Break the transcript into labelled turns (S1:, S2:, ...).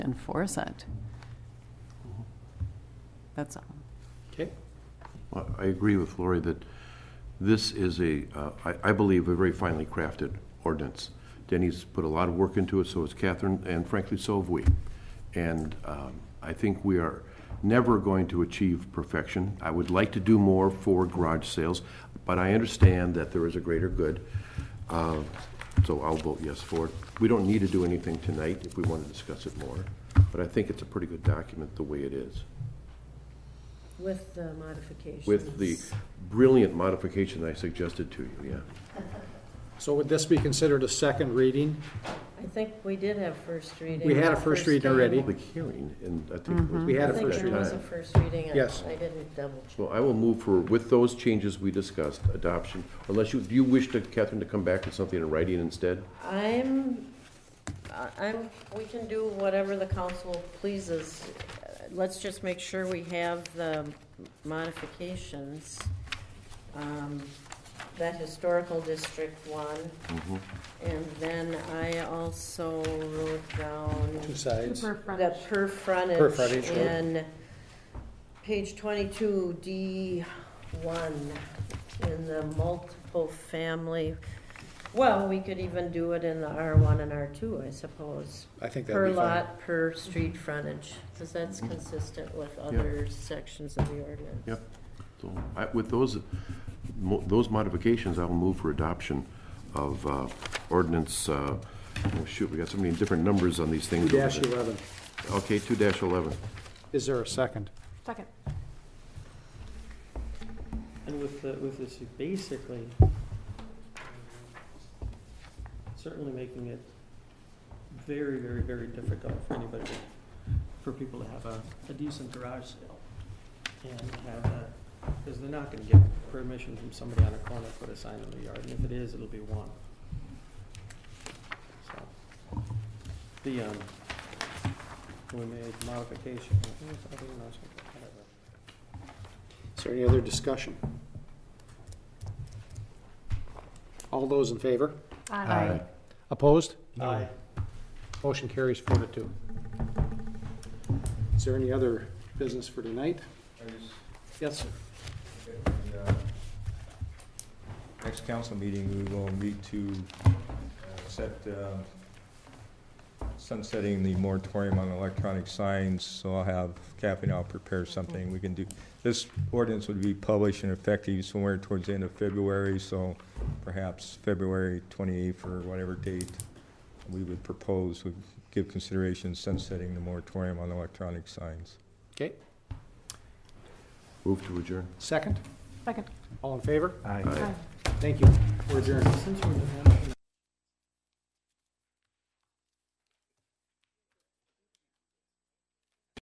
S1: enforce it. That's all.
S2: Okay.
S3: I I agree with Lori that this is a, uh, I I believe, a very finely crafted ordinance. Denny's put a lot of work into it, so has Catherine, and frankly, so have we. And um, I think we are never going to achieve perfection. I would like to do more for garage sales, but I understand that there is a greater good. Uh, So I'll vote yes for it. We don't need to do anything tonight if we want to discuss it more, but I think it's a pretty good document the way it is.
S4: With the modifications.
S3: with the brilliant modification I suggested to you, yeah.
S2: So would this be considered a second reading?
S4: I think we did have first reading.
S2: We had a
S4: on
S2: first reading already.
S4: time.
S3: Public hearing, and I think it was.
S2: We had
S4: I
S2: a
S4: think
S2: first
S4: there was a
S3: time.
S4: first reading. I-
S2: Yes.
S4: I didn't double check.
S3: So I will move for, with those changes we discussed, adoption, unless you, do you wish to, Catherine, to come back with something in writing instead?
S4: I'm, I- I'm, we can do whatever the council pleases. Uh, Let's just make sure we have the modifications. Um, That historical district one, and then I also wrote down.
S2: Two sides.
S4: The per
S2: Per
S4: frontage
S2: frontage, right.
S4: in page twenty-two, D one, in the multiple family. Well, we could even do it in the R one and R two, I suppose.
S2: I think that'd
S4: Per
S2: be fine. Mm-hmm.
S4: lot, per street frontage, because that's consistent with other sections of the ordinance.
S3: Yep. So I, with those, mo- those modifications, I will move for adoption of uh, ordinance, uh, oh shoot, we got so many different numbers on these things. over
S2: Dash
S3: there.
S2: eleven.
S3: Okay, two dash eleven.
S2: Is there a second?
S5: Second.
S6: And with the, with this, you basically, certainly making it very, very, very difficult for anybody, to- for people to have a, a decent garage sale. And have a, because they're not gonna get permission from somebody on a corner to put a sign in the yard, and if it is, it'll be one. So, the, um, we made modification, I think it's, I think it's, whatever.
S2: Is there any other discussion? All those in favor?
S5: Aye.
S2: Opposed?
S6: Aye.
S2: Motion carries four to two. Is there any other business for tonight?
S7: I just
S2: Yes, sir.
S7: think that the, uh, Next council meeting, we will meet to uh, set um, sunsetting the moratorium on electronic signs, so I'll have Kathy and I'll prepare something we can do. This ordinance would be published and effective somewhere towards the end of February, so perhaps February 28th or whatever date we would propose would give consideration sunsetting the moratorium on electronic signs.
S2: Okay,
S3: Move to adjourn.
S2: second?
S5: Second.
S2: All in favor?
S3: Aye.
S2: Thank you. We're adjourned.
S6: Since we're in the